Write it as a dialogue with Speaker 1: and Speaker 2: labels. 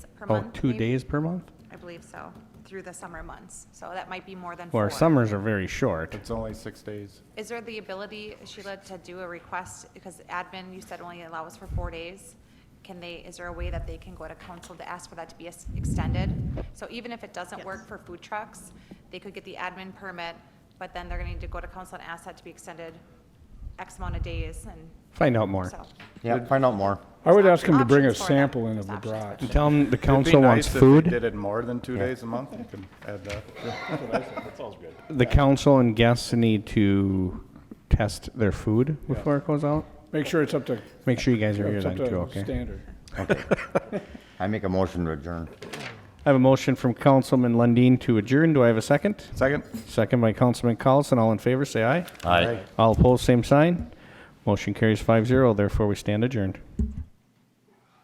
Speaker 1: per
Speaker 2: Oh,
Speaker 1: month.
Speaker 2: two
Speaker 1: maybe?
Speaker 2: days per month?
Speaker 1: I believe so, through the summer months. So that might be more than
Speaker 2: Well,
Speaker 1: four.
Speaker 2: our summers are very short.
Speaker 3: It's only six days.
Speaker 1: Is there the ability, Sheila, to do a request, because admin, you said only allows for four days? Can they, is there a way that they can go to council to ask for that to be ex- extended? So even if it doesn't work for food trucks, they could get the admin permit, but then they're gonna need to go to council and ask that to be extended X amount of days, and
Speaker 2: Find out more.
Speaker 1: so.
Speaker 3: Yeah. Find out more.
Speaker 4: I would ask him to
Speaker 1: There's
Speaker 4: bring a
Speaker 1: options for them.
Speaker 4: sample in of the
Speaker 1: There's options for
Speaker 4: brats.
Speaker 2: And Tell them the
Speaker 3: It'd be
Speaker 2: council
Speaker 3: nice
Speaker 2: wants
Speaker 3: if they
Speaker 2: food,
Speaker 3: Did it more than two days a month, you can add that.
Speaker 2: the council and guests need to test their food before it goes out.
Speaker 4: Make sure it's up to,
Speaker 2: Make sure you guys are here
Speaker 4: it's
Speaker 2: then
Speaker 4: up
Speaker 2: too,
Speaker 4: to
Speaker 2: okay?
Speaker 4: standard.
Speaker 5: I make a motion to adjourn.
Speaker 2: I have a motion from Councilman Lundin to adjourn. Do I have a second?
Speaker 3: Second?
Speaker 2: Second by Councilman Collison. All in favor, say aye.
Speaker 5: Aye.
Speaker 2: All opposed, same sign. Motion carries five zero. Therefore, we stand adjourned.